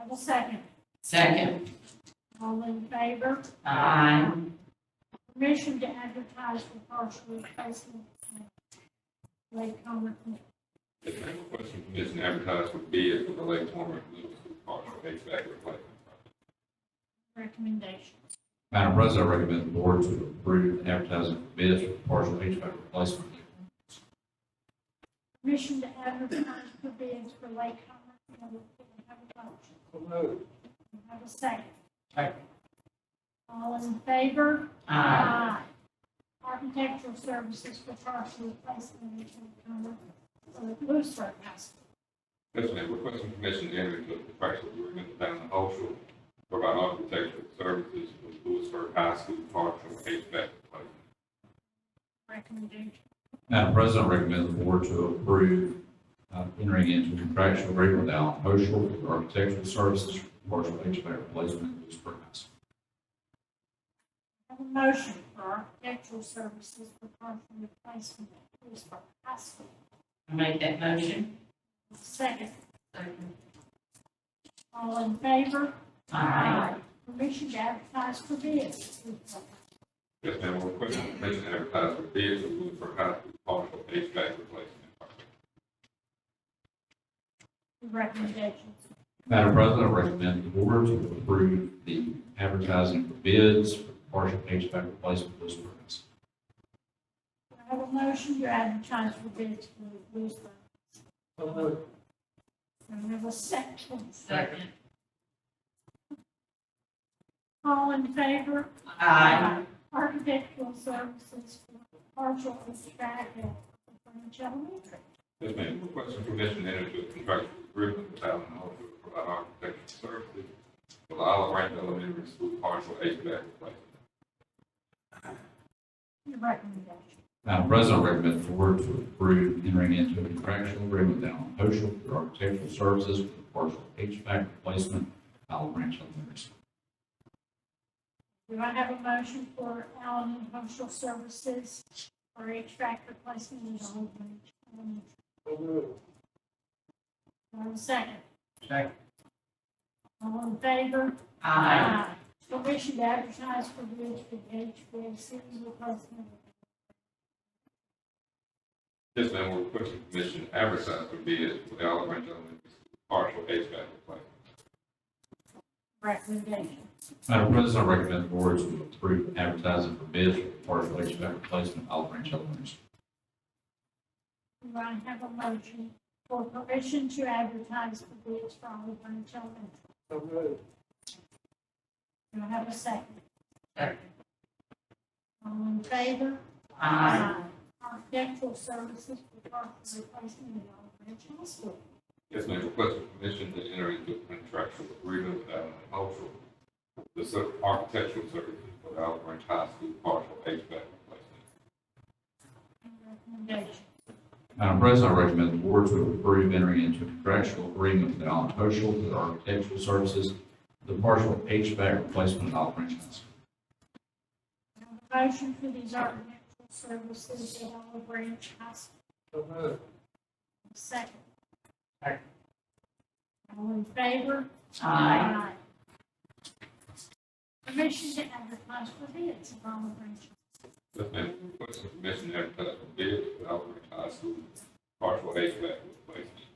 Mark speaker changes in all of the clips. Speaker 1: I will second.
Speaker 2: Second.
Speaker 1: All in favor?
Speaker 2: Aye.
Speaker 1: Permission to advertise for partial replacement of Lake Comer.
Speaker 3: The main question for Commission advertised would be if the Lake Torrent Middle School partial HVAC replacement.
Speaker 1: recommendation.
Speaker 4: Madam President, I recommend the board to approve advertising for bids for partial HVAC replacement.
Speaker 1: Permission to advertise for bids for Lake Comer. Can I Have a motion. Can I Have a second.
Speaker 2: Second.
Speaker 1: All in favor?
Speaker 2: Aye.
Speaker 1: Architectural services for partial replacement of Lake Comer, uh, Lewisburg House.
Speaker 3: Mr. Mayor, requesting permission to enter into a contractual agreement with Allen Cultural to provide architectural services for Lewisburg High School partial HVAC replacement.
Speaker 1: recommendation.
Speaker 4: Madam President, I recommend the board to approve uh, entering into contractual agreement with Allen Oshel for architectural services for partial HVAC replacement at Lewisburg High School.
Speaker 1: Have a motion for architectural services for partial replacement of Lewisburg High School.
Speaker 2: I make that motion.
Speaker 1: Second,
Speaker 2: Second.
Speaker 1: all in favor?
Speaker 2: Aye.
Speaker 1: Permission to advertise for bids. Lewisburg.
Speaker 3: Yes, ma'am, we're requesting permission to advertise for bids for Lewisburg High School partial HVAC replacement.
Speaker 1: Recommendations.
Speaker 4: Madam President, I recommend the board to approve the advertising for bids for partial HVAC replacement at Lewisburg High School.
Speaker 1: Do I have a motion to advertise for bids for Lewisburg. So moved. I have a second.
Speaker 2: Second.
Speaker 1: All in favor?
Speaker 2: Aye.
Speaker 1: Architectural services for partial HVAC at French Elementary.
Speaker 3: Yes, ma'am, requesting permission to enter into a contractual agreement with Allen Cultural to provide architectural services for the Olive Branch Elementary School partial HVAC replacement.
Speaker 1: Recommendation.
Speaker 4: Madam President, I recommend the board to approve entering into a contractual agreement with Allen Oshel for architectural services for the partial HVAC replacement at Olive Branch Elementary School.
Speaker 1: Do I have a motion for Allen and Cultural Services for HVAC replacement at Olive Branch Elementary? Do I have a second?
Speaker 2: Second.
Speaker 1: All in favor?
Speaker 2: Aye.
Speaker 1: Permission to advertise for bids for HVAC replacement.
Speaker 3: Yes, ma'am, we're requesting permission to advertise for bids for the Olive Branch Elementary School partial HVAC replacement.
Speaker 1: Recommendation.
Speaker 4: Madam President, I recommend the board to approve advertising for bids for the partial HVAC replacement at Olive Branch Elementary School.
Speaker 1: Do I have a motion for permission to advertise for bids for Olive Branch Elementary? Do I have a second?
Speaker 2: Second.
Speaker 1: All in favor?
Speaker 2: Aye.
Speaker 1: Architectural services for parks and replacement at Olive Branch High School.
Speaker 3: Yes, ma'am, request for permission to enter into a contractual agreement with Allen Cultural, the ser- architectural services for the Olive Branch High School partial HVAC replacement.
Speaker 1: Recommendation.
Speaker 4: Madam President, I recommend the board to approve entering into a contractual agreement with Allen Oshel for the architectural services for the partial HVAC replacement at Olive Branch High School.
Speaker 1: Do I have a Motion for these architectural services at Olive Branch High School. Second.
Speaker 2: Second.
Speaker 1: All in favor?
Speaker 2: Aye.
Speaker 1: Permission to advertise for bids at Olive Branch.
Speaker 3: Yes, ma'am, request for permission to advertise for bids for the Olive Branch High School partial HVAC replacement.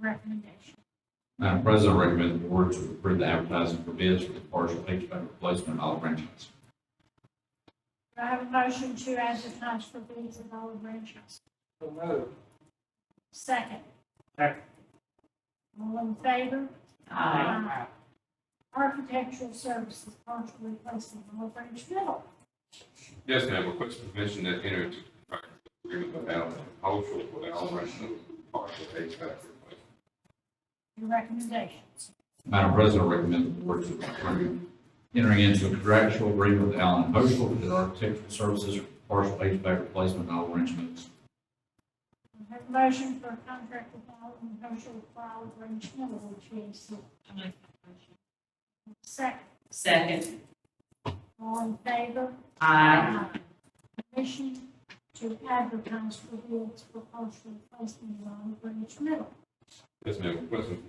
Speaker 1: Recommendation.
Speaker 4: Madam President, I recommend the board to approve the advertising for bids for the partial HVAC replacement at Olive Branch High School.
Speaker 1: Do I have a motion to advertise for bids at Olive Branch High School? Second.
Speaker 2: Second.
Speaker 1: All in favor?
Speaker 2: Aye.
Speaker 1: Architectural services partial replacement of Olive Branch Middle.
Speaker 3: Yes, ma'am, request for permission to enter into a contractual agreement with Allen Cultural for the Olive Branch Middle School partial HVAC replacement.
Speaker 1: Your recommendations.
Speaker 4: Madam President, I recommend the board to approve entering into a contractual agreement with Allen Oshel for the architectural services for partial HVAC replacement at Olive Branch Middle School.
Speaker 1: I Have a motion for a contract with Allen Cultural for Olive Branch Middle, which is
Speaker 2: I make that motion.
Speaker 1: second.
Speaker 2: Second.
Speaker 1: All in favor?
Speaker 2: Aye.
Speaker 1: Permission to advertise for bids for partial replacement of Olive Branch Middle.
Speaker 3: Yes, ma'am, request for